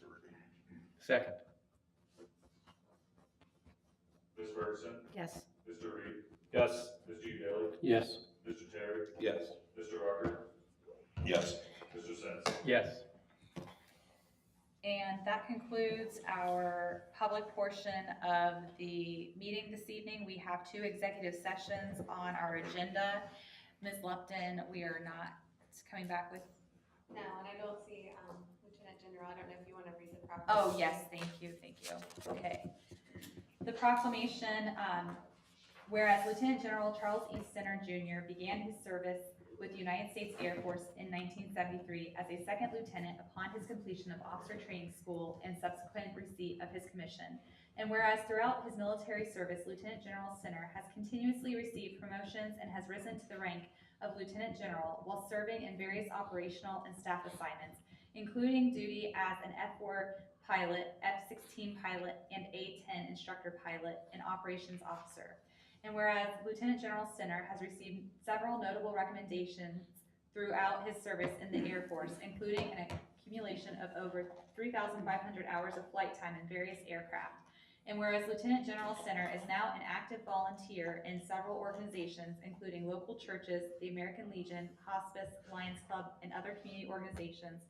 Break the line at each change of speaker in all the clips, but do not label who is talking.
twenty-three.
Second.
Ms. Ferguson,
Yes.
Mr. Reed,
Yes.
Ms. G. Bailey,
Yes.
Mr. Terry,
Yes.
Mr. Rucker,
Yes.
Mr. Sens.
Yes.
And that concludes our public portion of the meeting this evening. We have two executive sessions on our agenda. Ms. Lupton, we are not coming back with,
No, and I don't see um, Lieutenant General, I don't know if you want to read the proper.
oh, yes, thank you, thank you. Okay. The proclamation, um, whereas Lieutenant General Charles E. Center Jr. began his service with the United States Air Force in 1973 as a second lieutenant upon his completion of officer training school and subsequent receipt of his commission. And whereas throughout his military service, Lieutenant General Sinner has continuously received promotions and has risen to the rank of Lieutenant General while serving in various operational and staff assignments, including duty as an F-4 pilot, F-16 pilot, and A-10 instructor pilot and operations officer. And whereas Lieutenant General Sinner has received several notable recommendations throughout his service in the Air Force, including an accumulation of over 3,500 hours of flight time in various aircraft. And whereas Lieutenant General Center is now an active volunteer in several organizations, including local churches, the American Legion, Hospice, Lions Club, and other community organizations.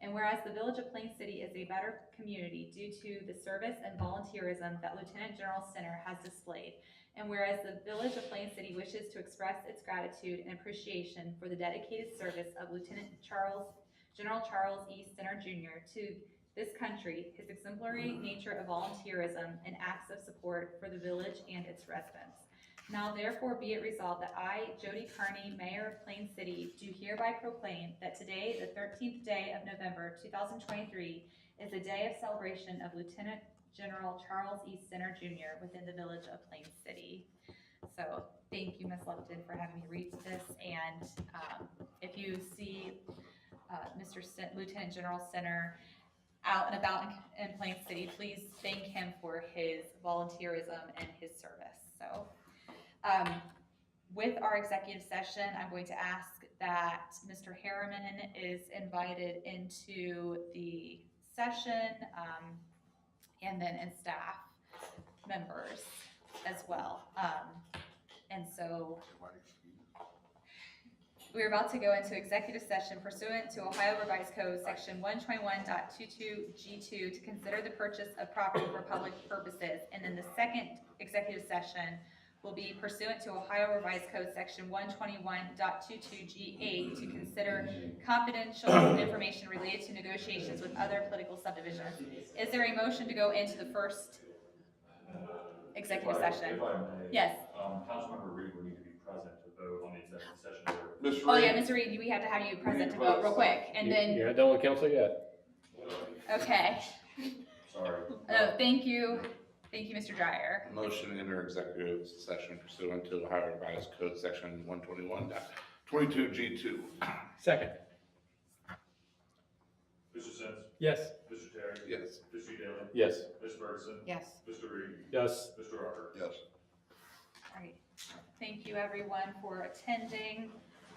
And whereas the Village of Plain City is a better community due to the service and volunteerism that Lieutenant General Center has displayed. And whereas the Village of Plain City wishes to express its gratitude and appreciation for the dedicated service of Lieutenant Charles, General Charles E. Center Jr. to this country, his exemplary nature of volunteerism and acts of support for the village and its residents. Now therefore be it resolved that I, Jody Carney, Mayor of Plain City, do hereby proclaim that today, the thirteenth day of November, two thousand twenty-three, is a day of celebration of Lieutenant General Charles E. Center Jr. within the village of Plain City. So thank you, Ms. Lupton, for having me read this. And um, if you see uh, Mr. Sen- Lieutenant General Center out and about in- in Plain City, please thank him for his volunteerism and his service. So um, with our executive session, I'm going to ask that Mr. Harriman is invited into the session. um, and then and staff members as well. Um, and so we are about to go into executive session pursuant to Ohio Revised Code, section one twenty-one G two to consider the purchase of property for public purposes. And then the second executive session will be pursuant to Ohio Revised Code, section one twenty-one G eight to consider confidential information related to negotiations with other political subdivisions. Is there a motion to go into the first executive session?
If I may.
Yes.
Um, Councilmember Reed would need to be present to vote on the executive session. order.
Ms.
Oh, yeah,
Reed?
Mr. Reed, we have to have you present to vote real quick, and then,
You're not done with council yet.
okay.
Sorry.
Oh, thank you, thank you, Mr. Dryer.
Motion to enter executive session pursuant to Ohio Revised Code Section one twenty-one twenty-two G two.
Second.
Mr. Sens,
Yes.
Mr. Terry,
Yes.
Ms. G. Bailey,
Yes.
Ms. Ferguson,
Yes.
Mr. Reed,
Yes.
Mr. Rucker.
Yes.
All right. Thank you, everyone, for attending.